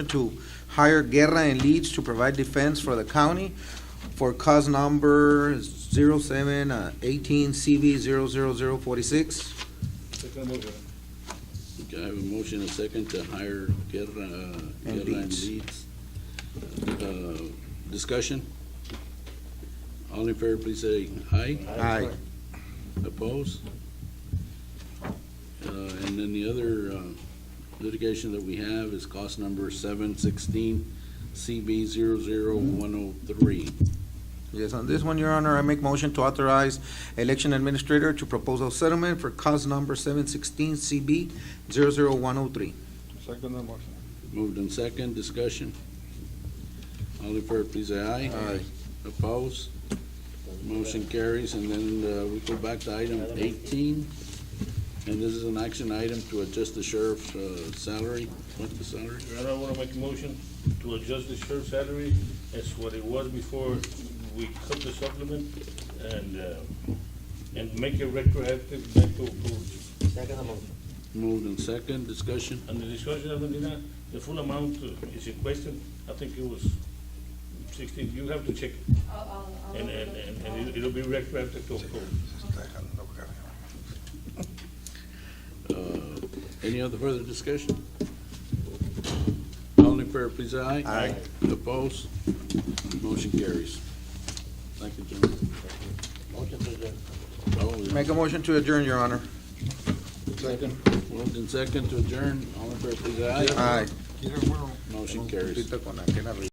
to hire Guerra and Leeds to provide defense for the county for cause number zero seven uh, eighteen CV zero zero zero forty-six. Second motion. Okay, I have a motion and a second to hire Guerra, uh, And Guerra and Leeds. Leeds. Uh, Discussion? All in favor, please say aye. Aye. Opposed? Uh, And then the other uh, litigation that we have is cost number seven sixteen CB zero zero one oh three. Yes, on this one, Your Honor, I make motion to authorize election administrator to propose a settlement for cause number seven sixteen CB zero zero one oh three. Second motion. Moved in second, discussion. All in favor, please say aye. Aye. Opposed? Motion carries, and then uh, we go back to item eighteen. And this is an action item to adjust the sheriff's uh, salary, what's the salary? Your Honor, I want to make a motion to adjust the sheriff's salary as what it was before we cut the supplement and, uh, and make it retroactive back to approve. Moved in second, discussion. And the discussion, Judge Medina, the full amount uh, is in question. I think it was sixteen, you have to check it. I'll- I'll- I'll And, and, overlook it. and- and it- it'll be retroactive to approve. Uh, Any other further discussion? All in favor, please say aye. Aye. Opposed? Motion carries. Thank you, gentlemen. Oh, Motion to Make a motion to adjourn, Your Honor. Moved in second to adjourn, all in favor, please say aye. Aye. Motion carries. Ahorita con aquel arreglo.